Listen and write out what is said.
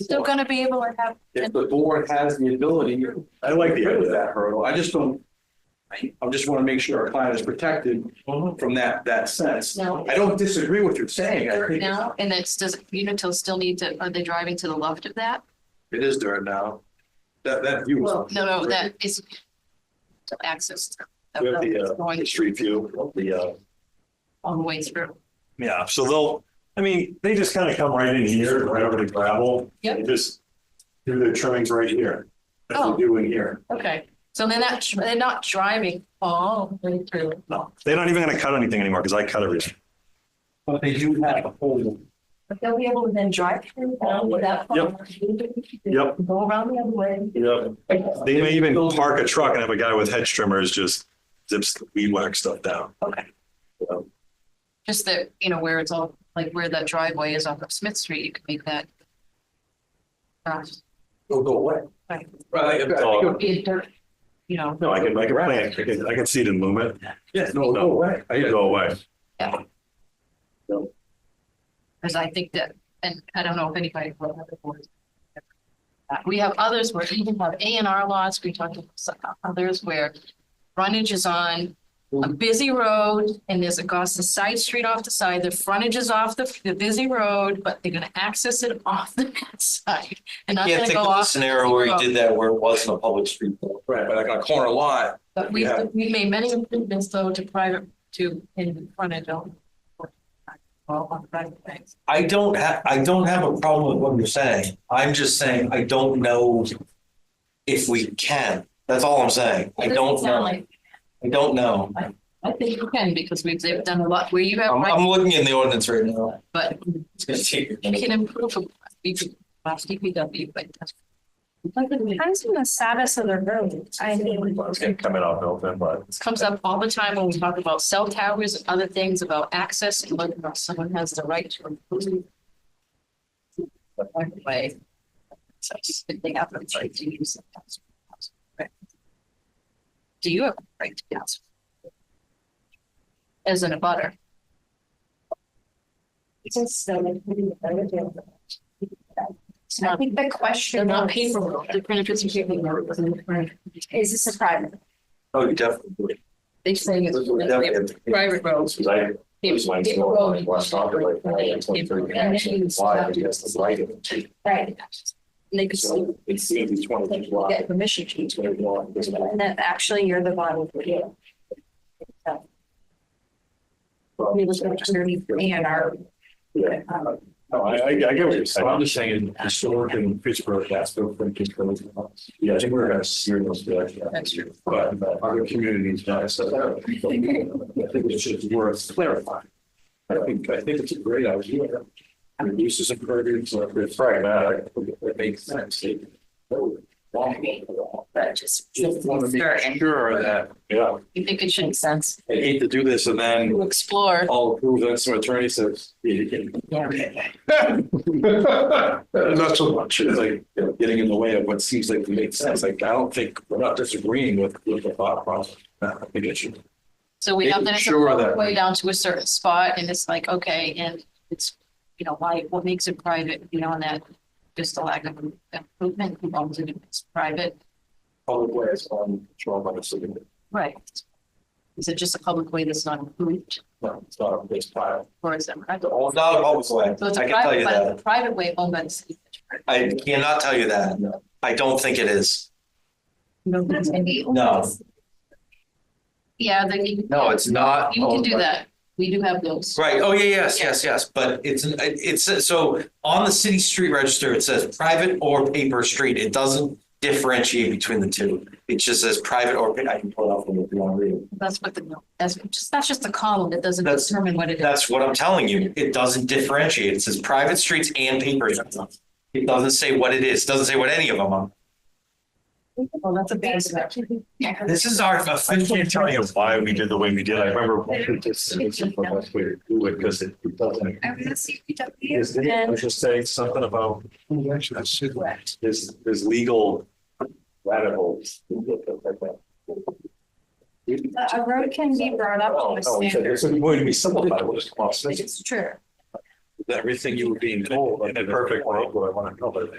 Still gonna be able to have, If the board has the ability, I like get rid of that hurdle. I just don't, I I just want to make sure our client is protected from that, that sense. No. I don't disagree with you saying. I think now, and it's, does Unitil still need to, are they driving to the left of that? It is dirt now. That, that view. is- No, no, that is to access. of We have the, uh, Going Street view of the, uh, all the way through. yeah, so they'll, I mean, they just kind of come right in here, right over the gravel. Yep. They Just do their trimmings right here, as Oh. they do in here. Okay, so they're not, they're not driving all the way through. No, they're not even gonna cut anything anymore, because I cut everything. But they do have a hole. But they'll be able to then drive through down to that. farm, Yep. Go around the other way. Yep. They may even park a truck and have a guy with hedge trimmers just zips the weed whack stuff down. Just that, you know, where it's all, like where that driveway is off of Smith Street, you could make that. cross. They'll Oh, go away. Right. Right. I think Oh. it'll- Be a dirt, you know, No, I can, I can plan, I can, I can see it in Lumet, Yes, no, it'll go away. I it'd go. go away. because I think that, and I don't know if anybody. what other boards- Uh, We have others where we have A and R lots, we talked about some others where frontage is on a busy road and there's across the side street off the side, the frontage is off the, the busy road, but they're gonna access it off the side. And not Yeah, gonna think go of the off. the scenario busy where you road. did that where it wasn't a public street. Right, but like on a corner lot, But we, Yeah. we made many improvements though to private, to in frontage on. Well, on private things. I don't have, I don't have a problem with what you're saying. I'm just saying I don't know if we can. That's all I'm saying. I It doesn't don't sound know. like- I don't know. I think you can because we've, they've done a lot where you have, I'm, rights, I'm looking in the ordinance right now. but It's gonna take a you minute. can improve. upon DPW, but. that's- Depends on the status of the road. I mean, It's gonna come in off Milton, but This comes up all the time when we talk about cell towers and other things about access and whether or not someone has the right to improve. But by the way. So it's a big effort, like, to use the council. Right. Do you have a right to counsel? As in a butter, since the- it's I not, think the they're question not is, paper, the benefits are paper. is this a private? Oh, you definitely. They're saying it's private roads. Because I, It's mine's paper going on road. in West Stockton, like, now, like, 23 And then why, because the lighting. Right. They could still so it seems it's twenty feet wide, get permission to. it's gonna be long, it doesn't matter. And that actually you're the one who did. We was going to A and R. Yeah. Um, No, I, I, I get what you're saying. I'm just saying, historically in Pittsburgh, that's still thinking. Yeah, I think we're gonna serial direction. That's true. But but other communities, I said, I don't think I think it's just worth clarifying. I think, I think it's a great idea. Reduces a burden, so if it's pragmatic, it makes sense. But just. just want to make sure that, Yeah. You think it should Makes sense. I hate to do this and then explore. I'll approve that some attorney says. "You can-" Not so much, it's like, you know, getting in the way of what seems like makes sense, like, I don't think, we're not disagreeing with, with the thought process. I think it should. So we have Making that it's sure all the that- way down to a certain spot and it's like, okay, and it's, you know, why, what makes it private beyond that? Just the lack of improvement, who owns it if it's private? Public way is on control by the city. Right. Is it just a public way that's not improved No, it's not a base pile. or is it private? It's not a public way. So it's I a can tell private, you that. but a private way owned by the city. I cannot tell you that. I don't think it is. No. Yeah, then you. No, it's not. You can owned do by- that. We do have those. Right, oh, yeah, yes, yes, yes, but it's, it's, so on the city street register, it says private or paper street, it doesn't differentiate between the two. It just says private or, pa- I can pull it up for you if you want to read it. That's what the, that's just, that's just the column that doesn't That's- determine what it is. That's what I'm telling you, it doesn't differentiate, it says private streets and paper. streets. It doesn't say what it is, It doesn't say what any of them are. Well, Oh, that's a basement. This is our I can't official. tell you why we did the way we did. I remember this is the best way to do it because it it doesn't. I was at Is CPW there, I was and just saying something about. There's, there's legal rabbit holes. a road can be brought up Oh, to a no, we said standard. There's going to be simplified, we'll just cross this. It's true. everything you were being told. In a perfect world, what I want to know, but